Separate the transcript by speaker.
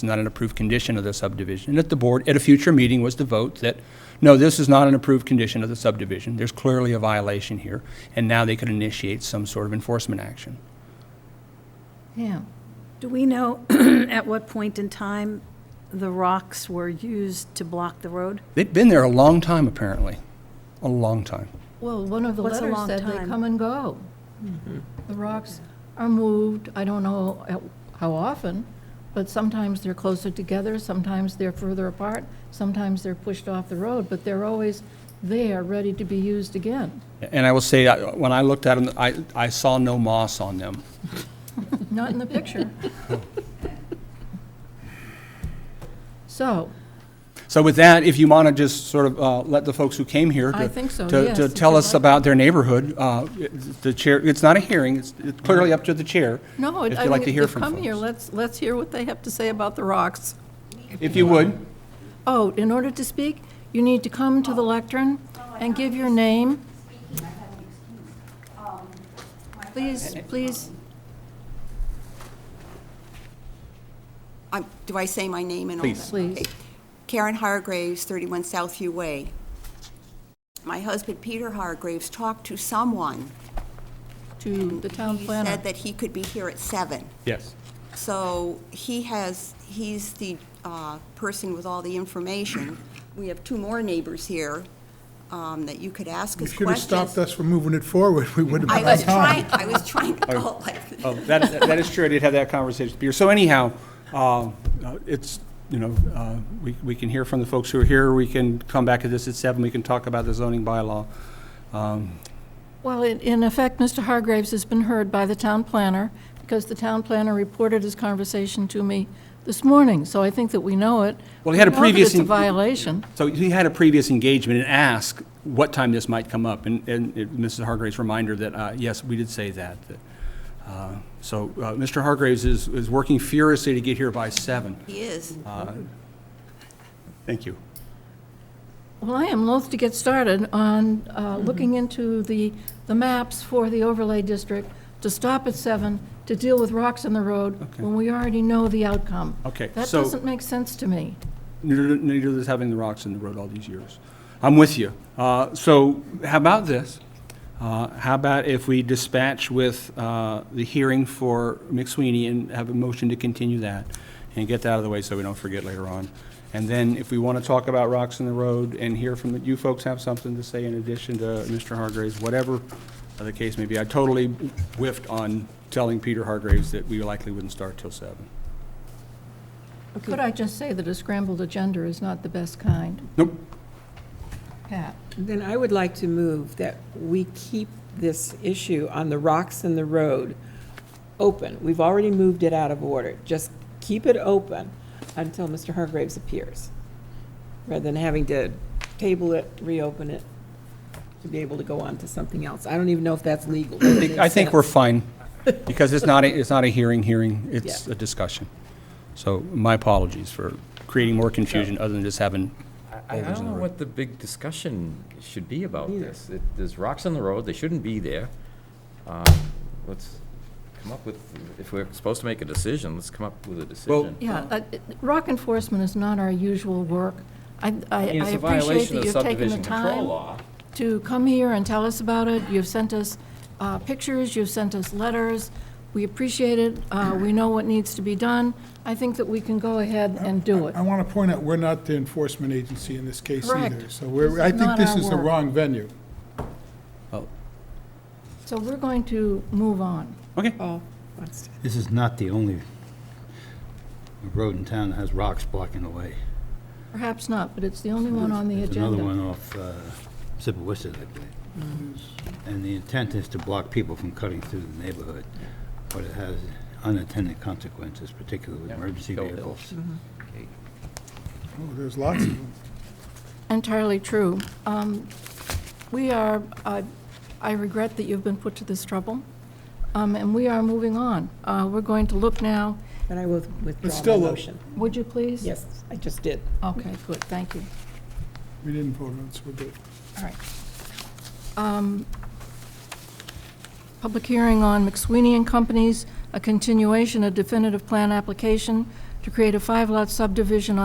Speaker 1: It's not an approved condition of the subdivision. And if the board, at a future meeting, was to vote that, no, this is not an approved condition of the subdivision, there's clearly a violation here, and now they could initiate some sort of enforcement action.
Speaker 2: Yeah.
Speaker 3: Do we know at what point in time the rocks were used to block the road?
Speaker 1: They'd been there a long time, apparently, a long time.
Speaker 2: Well, one of the
Speaker 3: What's a
Speaker 2: letters
Speaker 3: long
Speaker 2: said they
Speaker 3: time?
Speaker 2: come and go.
Speaker 1: Mm-hmm.
Speaker 2: The rocks are moved, I don't know at- how often, but sometimes they're closer together, sometimes they're further apart, sometimes they're pushed off the road, but they're always there, ready to be used again.
Speaker 1: And I will say, I- when I looked at them, I, I saw no moss on them.
Speaker 2: Not in the picture. So,
Speaker 1: So with that, if you want to just sort of uh, let the folks who came here
Speaker 2: I
Speaker 1: to-
Speaker 2: think so,
Speaker 1: to,
Speaker 2: yes,
Speaker 1: to
Speaker 2: if
Speaker 1: tell
Speaker 2: you'd
Speaker 1: us
Speaker 2: like.
Speaker 1: about their neighborhood, uh, it- the chair, it's not a hearing, it's it's clearly up to the chair.
Speaker 2: no,
Speaker 1: If
Speaker 2: I
Speaker 1: you'd like
Speaker 2: mean,
Speaker 1: to
Speaker 2: if
Speaker 1: hear
Speaker 2: they've
Speaker 1: from
Speaker 2: come here,
Speaker 1: folks.
Speaker 2: let's, let's hear what they have to say about the rocks.
Speaker 1: If you would.
Speaker 2: Oh, in order to speak, you need to come to the lectern and give your name. Please, please,
Speaker 4: I'm- Do I say my name and all that?
Speaker 1: Please.
Speaker 2: Please.
Speaker 4: Okay. Karen Hargraves, 31 Southview Way. My husband, Peter Hargraves, talked to someone.
Speaker 2: to the town
Speaker 4: He
Speaker 2: planner.
Speaker 4: said that he could be here at seven.
Speaker 1: Yes.
Speaker 4: So he has, he's the uh, person with all the information. We have two more neighbors here um, that you could ask
Speaker 5: You
Speaker 4: us questions.
Speaker 5: should have stopped us from moving it forward. We would have
Speaker 4: I
Speaker 5: been on
Speaker 4: was
Speaker 5: time.
Speaker 4: trying, I was trying to go like this.
Speaker 1: Oh, that, that is true, I did have that conversation with Peter. So anyhow, uh, uh, it's, you know, uh, we, we can hear from the folks who are here, we can come back to this at seven, we can talk about the zoning bylaw. Um,
Speaker 2: Well, in- in effect, Mr. Hargraves has been heard by the town planner, because the town planner reported his conversation to me this morning, so I think that we know it.
Speaker 1: Well, he had a
Speaker 2: We know that
Speaker 1: previous
Speaker 2: it's a
Speaker 1: en-
Speaker 2: violation.
Speaker 1: So he had a previous engagement and asked what time this might come up, and, and it- Mrs. Hargraves' reminder that, uh, yes, we did say that. that, uh, So uh, Mr. Hargraves is, is working furiously to get here by seven.
Speaker 4: He is.
Speaker 1: Thank you.
Speaker 2: Well, I am loath to get started on uh,
Speaker 1: Mm-hmm.
Speaker 2: looking into the, the maps for the overlay district, to stop at seven, to deal with rocks in the road,
Speaker 1: Okay.
Speaker 2: when we already know the outcome.
Speaker 1: Okay,
Speaker 2: That
Speaker 1: so-
Speaker 2: doesn't make sense to me.
Speaker 1: Neither neither does having the rocks in the road all these years. I'm with you. Uh, So how about this? Uh, How about if we dispatch with uh, the hearing for McSweeney and have a motion to continue that and get that out of the way so we don't forget later on? And then if we want to talk about rocks in the road and hear from, the- you folks have something to say in addition to Mr. Hargraves, whatever the case may be. I totally whiffed on telling Peter Hargraves that we likely wouldn't start till seven.
Speaker 2: Could I just say that a scrambled agenda is not the best kind?
Speaker 1: Nope.
Speaker 2: Pat?
Speaker 6: Then I would like to move that we keep this issue on the rocks and the road open. We've already moved it out of order. Just keep it open until Mr. Hargraves appears, rather than having to table it, reopen it, to be able to go on to something else. I don't even know if that's legal. but it
Speaker 1: think- I
Speaker 6: makes
Speaker 1: think we're
Speaker 6: sense.
Speaker 1: fine, because it's not, a- it's not a hearing, hearing, it's
Speaker 6: Yeah.
Speaker 1: a discussion. So my apologies for creating more confusion other than just having,
Speaker 7: I, I
Speaker 1: boulders in
Speaker 7: don't
Speaker 1: the
Speaker 7: know
Speaker 1: road.
Speaker 7: what the big discussion should be about
Speaker 6: Neither.
Speaker 7: this. It- There's rocks on the road, they shouldn't be there. Uh, Let's come up with, if we're supposed to make a decision, let's come up with a decision.
Speaker 2: Yeah, uh, rock enforcement is not our usual work. I I-
Speaker 7: I mean,
Speaker 2: I
Speaker 7: it's a
Speaker 2: appreciate
Speaker 7: violation
Speaker 2: that
Speaker 7: of
Speaker 2: you've taken the
Speaker 7: subdivision control
Speaker 2: time
Speaker 7: law.
Speaker 2: to come here and tell us about it. You've sent us uh, pictures, you've sent us letters. We appreciate it. Uh, We know what needs to be done. I think that we can go ahead and do it.
Speaker 5: I want to point out, we're not the enforcement agency in this case
Speaker 2: Correct.
Speaker 5: either. So we're,
Speaker 2: This
Speaker 5: I
Speaker 2: is
Speaker 5: think
Speaker 2: not
Speaker 5: this
Speaker 2: our
Speaker 5: is the
Speaker 2: work.
Speaker 5: wrong venue.
Speaker 2: So we're going to move on.
Speaker 1: okay,
Speaker 6: Paul wants to-
Speaker 8: This is not the only road in town that has rocks blocking the way.
Speaker 2: Perhaps not, but it's the only one on the
Speaker 8: There's another one
Speaker 2: agenda.
Speaker 8: off uh, Sipawissa, I believe.
Speaker 2: Mm-hmm.
Speaker 8: And the intent is to block people from cutting through the neighborhood, but it has unintended consequences, particularly with emergency
Speaker 7: Hill Hill.
Speaker 8: vehicles.
Speaker 5: Oh, there's lots of them.
Speaker 2: Entirely true. Um, We are, I- I regret that you've been put to this trouble, um, and we are moving on. Uh, We're going to look now,
Speaker 6: Then I will
Speaker 5: It's
Speaker 6: withdraw
Speaker 5: still
Speaker 6: my
Speaker 5: a-
Speaker 6: motion.
Speaker 2: would you please?
Speaker 6: Yes, I just did.
Speaker 2: Okay, good, thank you.
Speaker 5: We didn't vote on it, so we're good.
Speaker 2: All right. Um, Public hearing on McSweeney and Companies, a continuation of definitive plan application to create a five-lot subdivision